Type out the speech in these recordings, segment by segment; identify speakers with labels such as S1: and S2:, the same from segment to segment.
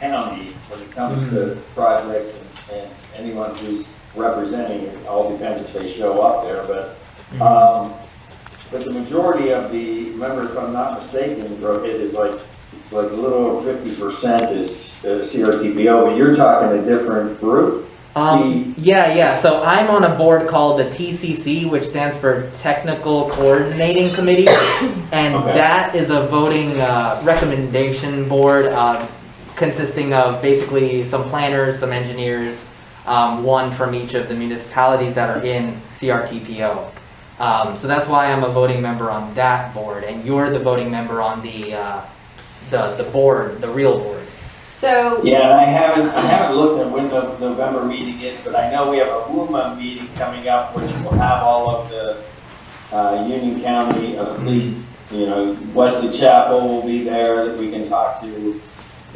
S1: county when it comes to projects and, and anyone who's representing, it all depends if they show up there, but, um, but the majority of the, remember, if I'm not mistaken, bro, it is like, it's like a little over fifty percent is uh, CRTPO, but you're talking a different group?
S2: Um, yeah, yeah. So I'm on a board called the TCC, which stands for Technical Coordinating Committee, and
S1: Okay.
S2: that is a voting uh, recommendation board um, consisting of basically some planners, some engineers, um, one from each of the municipalities that are in CRTPO. Um, so that's why I'm a voting member on that board, and you're the voting member on the uh, the the board, the real board.
S3: So,
S1: Yeah, and I haven't, I haven't looked at when the November meeting is, but I know we have a WUMA meeting coming up, which will have all of the, uh, Union County, uh, at least, you know, Wesley Chapel will be there that we can talk to,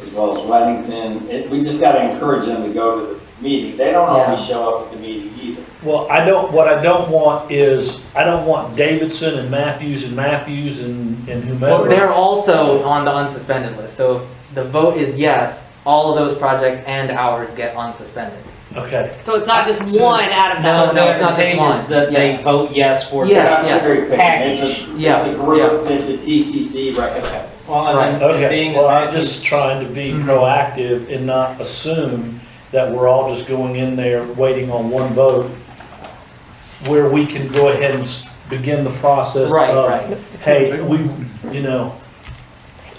S1: as well as Weddington. It, we just gotta encourage them to go to the meeting. They don't always show up at the meeting either.
S4: Well, I don't, what I don't want is, I don't want Davidson and Matthews and Matthews and and
S2: Well,
S4: whomever.
S2: they're also on the unsuspended list, so if the vote is yes, all of those projects and ours get unsuspended.
S4: Okay,
S3: so it's not just
S5: So-
S3: one out of nine.
S2: No,
S5: So it's
S2: no, it's not just
S5: advantageous
S2: one.
S5: that they
S2: Yeah.
S5: vote yes for
S2: Yes,
S5: this.
S1: That's
S2: yeah.
S1: very picky. It's a-
S2: Yeah,
S1: It's a group that the TCC recommends.
S5: Well, and then
S4: okay.
S5: being
S4: Well,
S5: that
S4: I'm just trying to be
S2: Mhm.
S4: proactive and not assume that we're all just going in there waiting on one vote where we can go ahead and s- begin the process
S2: Right,
S4: of,
S2: right.
S4: hey, we, you know,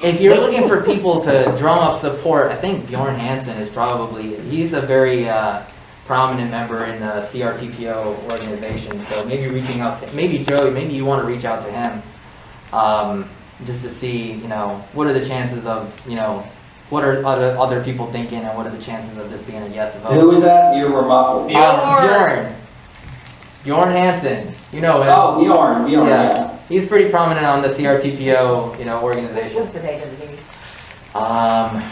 S2: If you're looking for people to drum up support, I think Bjorn Hansen is probably, he's a very, uh, prominent member in the CRTPO organization, so maybe reaching out, to maybe Joey, maybe you wanna reach out to him. Um, just to see, you know, what are the chances of, you know, what are other, other people thinking and what are the chances of this being a yes vote?
S1: Who is that? You were muffled.
S2: Uh,
S3: Bjorn.
S2: Bjorn. Bjorn Hansen. You know him.
S1: Oh, Bjorn, Bjorn,
S2: Yeah.
S1: yeah.
S2: He's pretty prominent on the CRTPO, you know, organization.
S3: the date of the meeting?
S2: Um,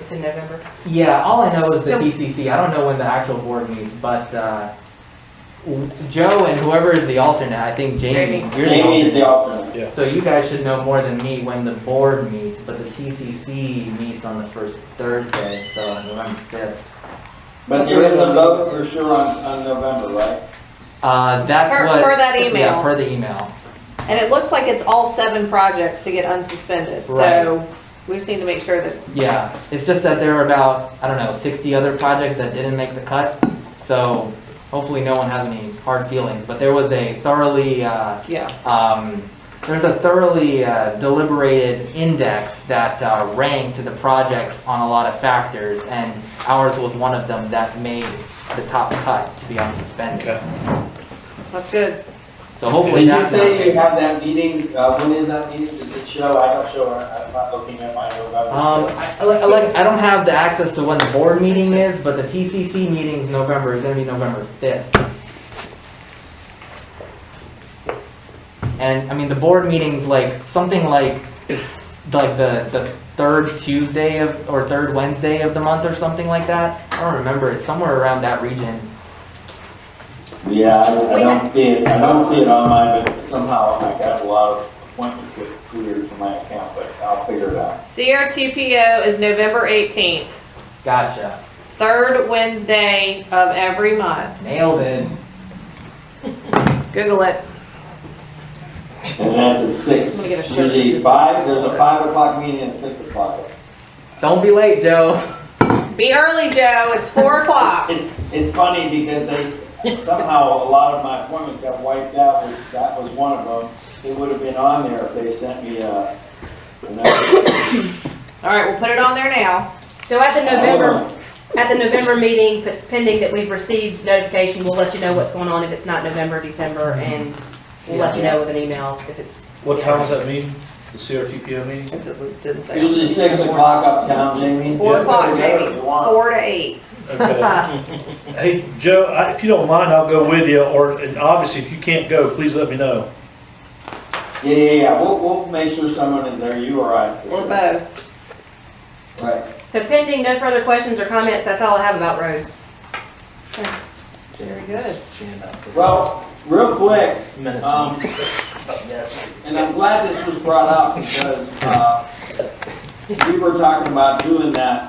S3: It's in November.
S2: yeah, all I know is the
S3: So-
S2: TCC. I don't know when the actual board meets, but uh, w- Joe and whoever is the alternate, I think Jamie,
S3: Jamie.
S2: you're
S1: Jamie
S2: the
S1: is
S2: alternate.
S1: the alternate.
S2: So you guys should know more than me when the board meets, but the TCC meets on the first Thursday, so November 5th.
S1: But there is a vote for sure on, on November, right?
S2: Uh, that's
S6: Per-
S2: what.
S6: per that
S2: Yeah,
S6: email.
S2: per the email.
S6: And it looks like it's all seven projects to get unsuspended, so we just need to make sure that,
S2: Yeah, it's just that there are about, I don't know, 60 other projects that didn't make the cut, so hopefully no one has any hard feelings, but there was a thoroughly, uh,
S6: yeah,
S2: um, there's a thoroughly uh, deliberated index that uh, ranked the projects on a lot of factors, and ours was one of them that made the top cut to be unsuspended.
S4: okay.
S6: that's good.
S2: So hopefully that's.
S1: Did you say you
S2: not-
S1: have that meeting, uh, when is that meeting, does it show, I don't show, I'm not looking at my November.
S2: Um, I, I like- I like, I don't have the access to when the board meeting is, but the TCC meeting's November, is gonna be November fifth. And, I mean, the board meeting's like, something like, it's like the, the third Tuesday of, or third Wednesday of the month or something like that. I don't remember, it's somewhere around that region.
S1: Yeah, I, I don't see it, I don't see it on mine, but somehow I got a lot of appointments that cleared from my account, but I'll figure it out.
S6: CRTPO is November eighteenth,
S2: Gotcha,
S6: third Wednesday of every month.
S2: nailed it.
S6: Google it.
S1: And that's at six,
S6: I'm gonna get a shirt that
S1: usually
S6: just says
S1: five, there's a
S6: November.
S1: five o'clock meeting and six o'clock.
S2: Don't be late, Joe.
S6: Be early, Joe, it's four o'clock.
S1: It's, it's funny because they, somehow a lot of my appointments got wiped out, which that was one of them. It would have been on there if they sent me uh, a, a notice.
S6: All right, we'll put it on there now.
S7: So at the November, at the November meeting, p- pending that we've received notification, we'll let you know what's going on if it's not November, December, and we'll let you know with an email if it's.
S4: What time is that meeting? The CRTPO meeting?
S6: It doesn't, didn't say.
S1: Usually six o'clock uptown, Jamie.
S6: Four o'clock,
S1: Whatever
S6: Jamie,
S1: you want.
S6: four to eight.
S4: Okay. Hey, Joe, I- if you don't mind, I'll go with you, or, and obviously, if you can't go, please let me know.
S1: Yeah, yeah, yeah, we'll, we'll make sure someone is there, you or I. for
S6: Or
S1: sure.
S6: both.
S1: Right.
S7: So pending no further questions or comments, that's all I have about roads.
S6: Very good.
S1: Well, real quick,
S5: Minnesota.
S1: um, and I'm glad this was brought up because, uh, we were talking about doing that